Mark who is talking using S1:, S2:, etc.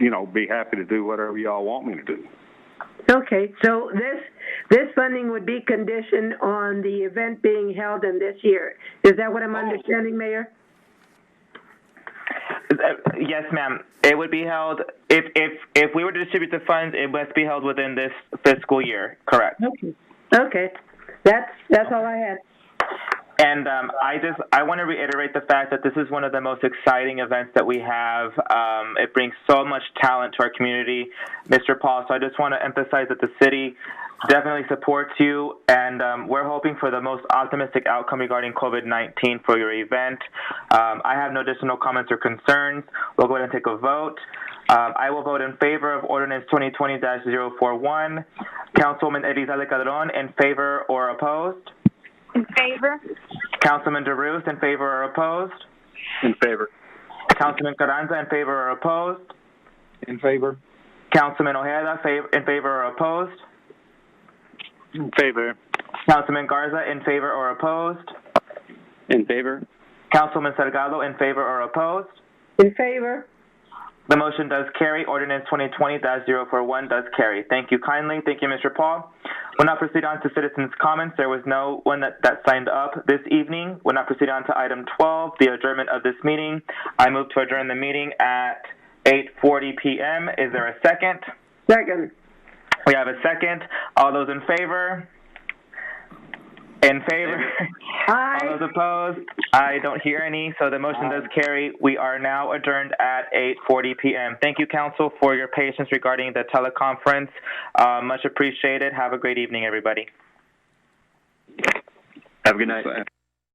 S1: you know, be happy to do whatever y'all want me to do.
S2: Okay, so this, this funding would be conditioned on the event being held in this year. Is that
S3: Oh.
S2: what I'm understanding, Mayor?
S3: Uh, Yes, ma'am. It would be held, if, if, if we were to distribute the funds, it must be held within this fiscal year, correct?
S2: Okay. Okay, that's, that's all I had.
S3: And um, I just, I want to reiterate the fact that this is one of the most exciting events that we have. Um, it brings so much talent to our community, Mr. Paul. So I just want to emphasize that the city definitely supports you, and um, we're hoping for the most optimistic outcome regarding COVID-19 for your event. Um, I have no additional comments or concerns. We'll go ahead and take a vote. Um, I will vote in favor of Ordinance 2020-041. Councilwoman Elizalde Calderon, in favor or opposed?
S4: In favor?
S3: Councilman DeRusse, in favor or opposed?
S1: In favor.
S3: Councilman Carranza, in favor or opposed?
S5: In favor?
S3: Councilman Ojeda, fav- in favor or opposed?
S1: In favor.
S3: Councilman Garza, in favor or opposed?
S1: In favor.
S3: Councilman Salgado, in favor or opposed?
S2: In favor?
S3: The motion does carry. Ordinance 2020-041 does carry. Thank you kindly. Thank you, Mr. Paul. We'll now proceed on to citizens' comments. There was no one that, that signed up this evening. We'll now proceed on to item 12, the adjournment of this meeting. I move to adjourn the meeting at 8:40 p.m. Is there a second?
S2: Second.
S3: We have a second. All those in favor? In favor? All
S2: Aye.
S3: those opposed? I don't hear any, so the motion does carry. We are now adjourned at 8:40 p.m. Thank you, council, for your patience regarding the teleconference. Uh, much appreciated. Have a great evening, everybody.
S1: Have a good night.